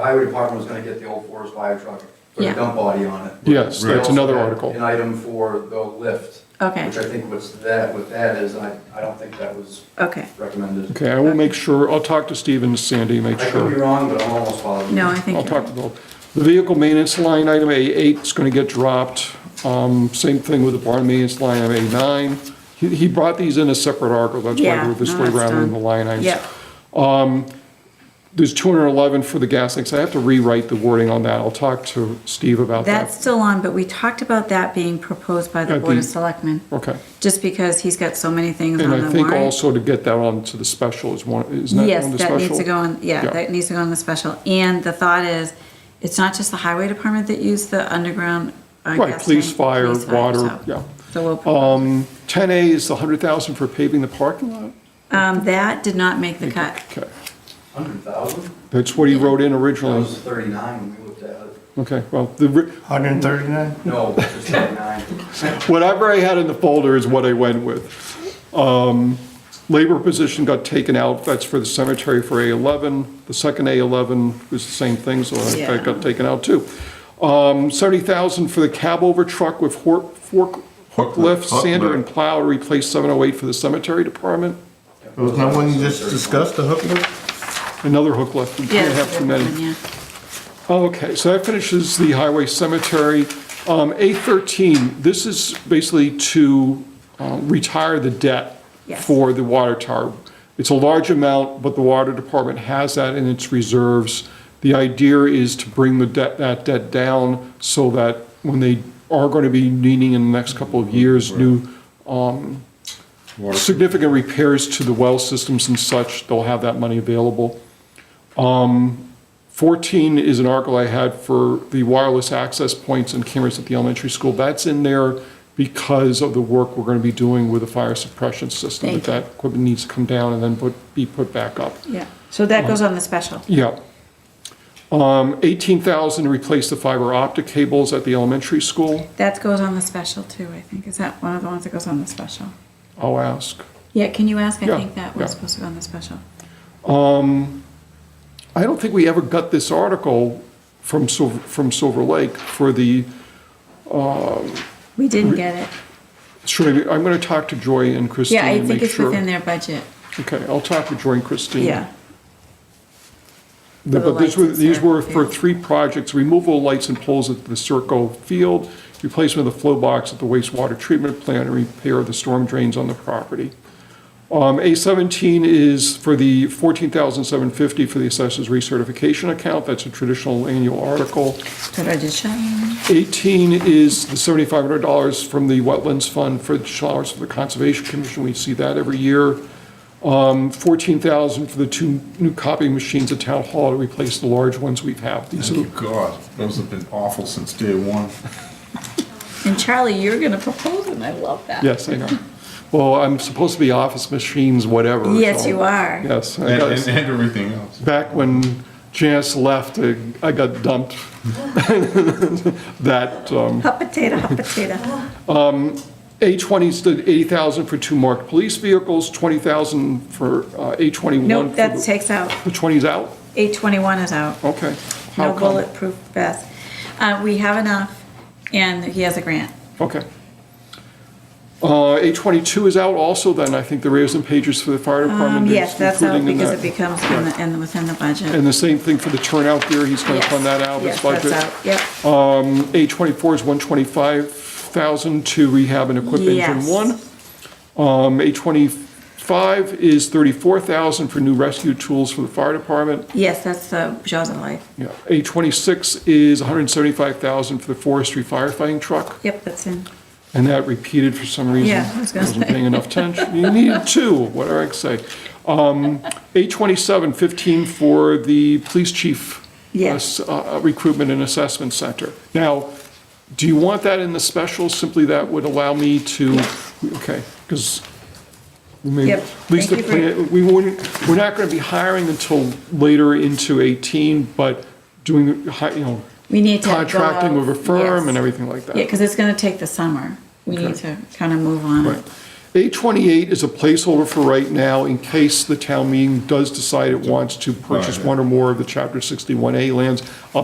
Highway department was gonna get the old forest fire truck, put Yeah. a dump body on it. Yes, They that's also another had article. An item for the lift, Okay, which I think what's that, what that is, I, I don't think that was okay. recommended. Okay, I will make sure, I'll talk to Steve and Sandy, make I could be sure. wrong, but I'm almost positive. No, I think. I'll talk to them. The vehicle maintenance line item A8 is going to get dropped. Um, Same thing with the barn maintenance line item A9. He he brought these in a separate article, that's why Yeah, we're this no, way that's around in the done. line items. Yep, There's 211 for the gas tanks. I have to rewrite the wording on that. I'll talk to Steve about that. that's still on, but we talked about that being proposed by the At Board of the- Selectmen, Okay. just because he's got so many things on And I the think warrant. also to get that on to the special is one, isn't that on Yes, the that special? needs to go on, yeah, Yeah. that needs to go on the special. And the thought is, it's not just the highway department that use the underground. uh, Right, gas police, tank, fire, police water, so- yeah. Um, So we'll, propose- 10A is the 100,000 for paving the parking lot? um, that did not make the cut. Okay. Hundred thousand? That's what he wrote in That originally. was thirty-nine when we looked at it. Okay, well, the, ri- 139? No, just thirty-nine. whatever I had in the folder is what I went with. Um, Labor position got taken out, that's for the cemetery for A11. The second A11 was the same thing, so that- that got taken out too. Um, 70,000 for the cab over truck with hor- fork, hook lift, sander and plow, to replace 708 for the cemetery department. Was that one you just discussed, the hook lift? Another hook lift, we Yeah, can't have too many. yeah. Oh, Okay, so that finishes the highway cemetery. Um, A13, this is basically to uh, retire the debt Yes. for the water tower. It's a large amount, but the water department has that in its reserves. The idea is to bring the debt, that debt down so that when they are going to be needing in the next couple of years, new um, significant repairs to the well systems and such, they'll have that money available. 14 is an article I had for the wireless access points and cameras at the elementary school. That's in there because of the work we're going to be doing with the fire suppression system. Thank That that equipment needs to come down and then put, be put back up. Yeah, so Um, that goes on the special. Yeah. Um, 18,000 to replace the fiber optic cables at the elementary school. That goes on the special too, I think. Is that one of the ones that goes on the special? I'll ask. Yeah, can you ask? I Yeah, think that was yeah. supposed to go on the special. I don't think we ever got this article from Silver, from Silver Lake for the, We didn't get it. should I, I'm going to talk to Joy and Christine Yeah, I and think make it's sure. within their budget. Okay, I'll talk to Joy and Christine. Yeah, The- For the But these lights were, and these stuff, were for yeah. three projects, removal of lights and poles at the Circo Field, replacement of the flow box at the wastewater treatment plant, and repair of the storm drains on the property. Um, A seventeen is for the fourteen thousand seven fifty for the assessors recertification account, that's a traditional annual article. so I just shut in. 18 is the $7,500 from the Wetlands Fund for the showers for the Conservation Commission. We see that every year. Um, 14,000 for the two new copying machines at Town Hall to replace the large ones we've had. These are, Oh, God, those have been awful since day one. And Charlie, you're gonna propose and I love that. yes, I know. Well, I'm supposed to be office machines, whatever. Yes, so- you are. Yes. I And, got- and and everything else. Back when Janice left, I I got dumped. That, um, Hot potato, hot potato. A20 is the 80,000 for two marked police vehicles, 20,000 for uh, A21. Nope, for that the- takes out. The 20's out? Eight twenty-one is out. Okay. How No come? bulletproof vest. Uh, we have enough and he has a grant. Okay. Uh, A22 is out also then, I think the radios and pagers for the fire Um, department. is yes, that's out including in because it that. becomes in the, in, within the budget. And the same thing for the turnout gear, he's going to Yes, fund that out of yes, his budget. that's out, Yep. A24 is 125,000 to rehab and equip engine Yes. one. Um, A25 is 34,000 for new rescue tools for the fire department. Yes, that's the Jaws of Life. Yeah, A26 is 175,000 for the forestry firefighting truck, Yep, that's in. and that repeated for some reason. Yeah, I was gonna Wasn't say. paying enough attention. You needed two, what do I say? Um, A27, 15 for the police chief. Yes. uh, s- uh, Recruitment and Assessment Center. Now, do you want that in the special? Simply that would allow me to, okay, because Maybe- Yep, At least, the thank you for- plan- we wouldn't, we're not gonna be hiring until later into 18, but doing, the hi- you know, We need to go contracting with a out, firm and yes. everything like that. Yeah, because it's gonna take the summer. We need to kind of move on. Right. 828 is a placeholder for right now in case the town meeting does decide it wants to purchase Right. one or more of the Chapter 61A lands.